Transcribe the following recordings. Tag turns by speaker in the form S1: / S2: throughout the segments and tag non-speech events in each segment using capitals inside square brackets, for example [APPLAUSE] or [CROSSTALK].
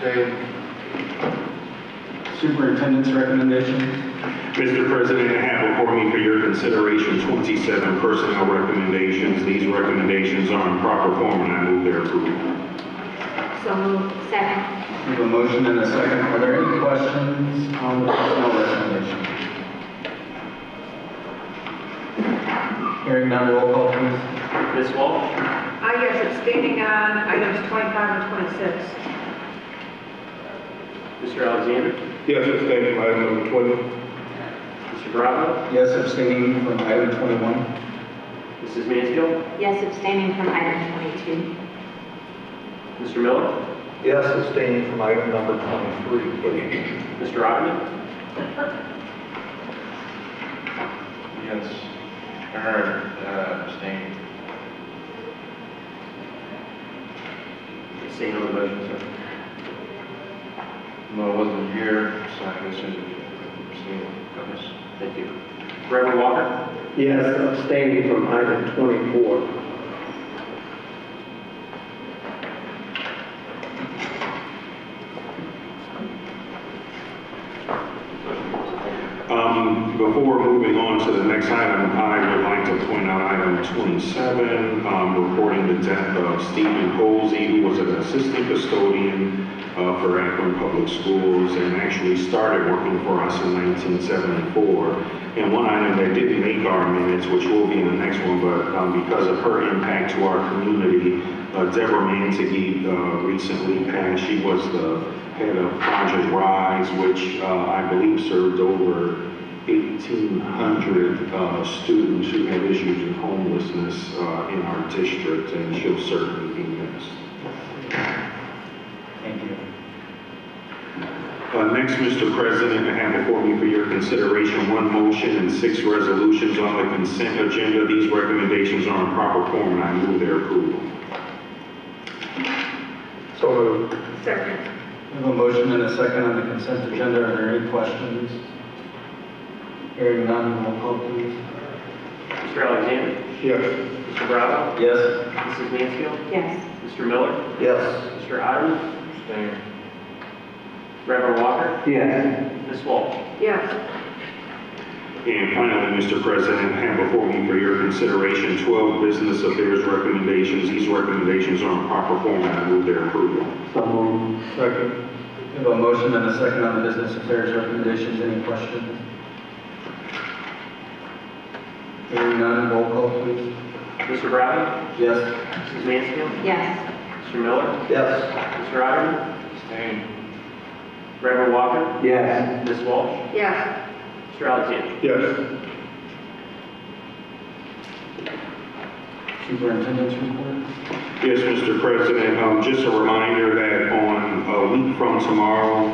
S1: Shade.
S2: Superintendent's recommendation.
S3: Mr. President, I have before me for your consideration 27 personnel recommendations. These recommendations are in proper form, and I move their approval.
S4: So moved. Second.
S2: We have a motion and a second. Are there any questions on the personnel recommendation? Hearing none, roll call please.
S5: Ms. Walsh?
S6: I guess abstaining on items 25 and 26.
S5: Mr. Alexander?
S3: Yes, abstain from item number 20.
S5: Mr. Bravo?
S2: Yes, abstaining from item 21.
S5: Mrs. Mansfield?
S4: Yes, abstaining from item 22.
S5: Mr. Miller?
S1: Yes, abstaining from item number 23, please.
S5: Mr. Ogden?
S7: Yes, Aaron uh, abstained.
S5: Abstain on the motion, sir.
S7: No, I wasn't here, so I guess I abstained. Yes.
S5: Thank you. Reverend Walker?
S8: Yes, abstaining from item 24.
S3: Um, Before moving on to the next item, I would like to point out item 27, um, reporting the death of Stephen Posey, who was an assistant custodian uh, for Akron Public Schools and actually started working for us in 1974. And one item that didn't make our minutes, which will be in the next one, but um, because of her impact to our community, uh, Deborah Mantigi uh, recently passed. She was the head of Project Rise, which uh, I believe served over 1,800 uh, students who had issues with homelessness uh, in our district, and she'll certainly be missed.
S2: Thank you.
S3: Uh, Next, Mr. President, I have before me for your consideration one motion and six resolutions on the consent agenda. These recommendations are in proper form, and I move their approval.
S8: So moved.
S6: Second.
S2: We have a motion and a second on the consent agenda. Are there any questions? Hearing none, roll call please.
S5: Mr. Alexander?
S3: Yes.
S5: Mr. Bravo?
S2: Yes.
S5: Mrs. Mansfield?
S4: Yes.
S5: Mr. Miller?
S8: Yes.
S5: Mr. Ogden?
S7: Abstained.
S5: Reverend Walker?
S8: Yes.
S5: Ms. Walsh?
S6: Yes.
S3: And finally, Mr. President, I have before me for your consideration 12 business affairs recommendations. These recommendations are in proper form, and I move their approval.
S8: So moved.
S2: Second. We have a motion and a second on the business affairs recommendations. Any questions? Hearing none, roll call please.
S5: Mr. Bravo?
S2: Yes.
S5: Mrs. Mansfield?
S4: Yes.
S5: Mr. Miller?
S2: Yes.
S5: Mr. Ogden?
S7: Abstained.
S5: Reverend Walker?
S8: Yes.
S5: Ms. Walsh?
S6: Yes.
S5: Mr. Alexander?
S3: Yes.
S2: Superintendent's report.
S3: Yes, Mr. President, um, just a reminder that on a week from tomorrow,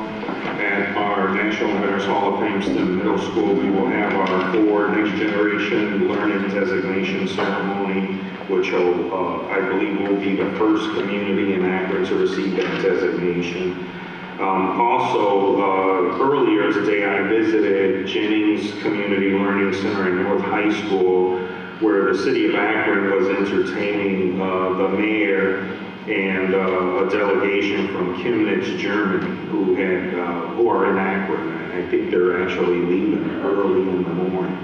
S3: at our National Veterans Hall of Fame STEM Middle School, we will have our four Next Generation Learning Designation Ceremony, which will, uh, I believe will be the first community in Akron to receive that designation. Um, also, uh, earlier today, I visited Jennings Community Learning Center in North High School, where the city of Akron was entertaining uh, the mayor and uh, a delegation from Chemnitz, Germany, who had uh, who are in Akron. I think they're actually leaving early in the morning.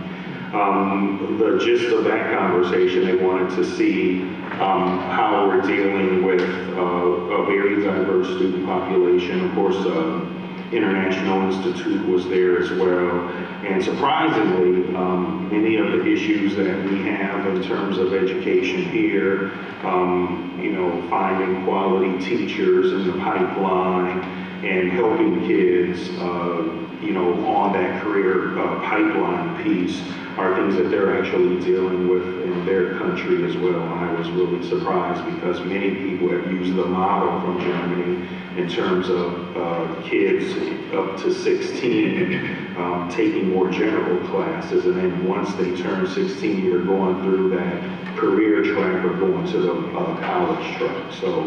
S3: Um, the gist of that conversation, they wanted to see um, how we're dealing with uh, a very diverse student population. Of course, uh, International Institute was there as well. And surprisingly, um, many of the issues that we have in terms of education here, um, you know, finding quality teachers in the pipeline and helping kids, uh, you know, on that career uh, pipeline piece are things that they're actually dealing with in their country as well. And I was really surprised because many people have used the model from Germany in terms of uh, kids up to 16 [LAUGHS] um, taking more general classes. And then once they turn 16, you're going through that career track or going to the uh, college track. So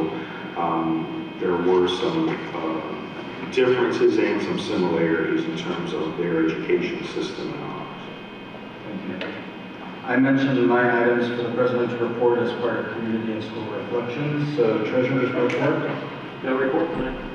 S3: um, there were some uh, differences and some similarities in terms of their education system and ours.
S2: Thank you. I mentioned my items for the president's report as part of community and school reflections. So treasurer's report.
S5: No report tonight.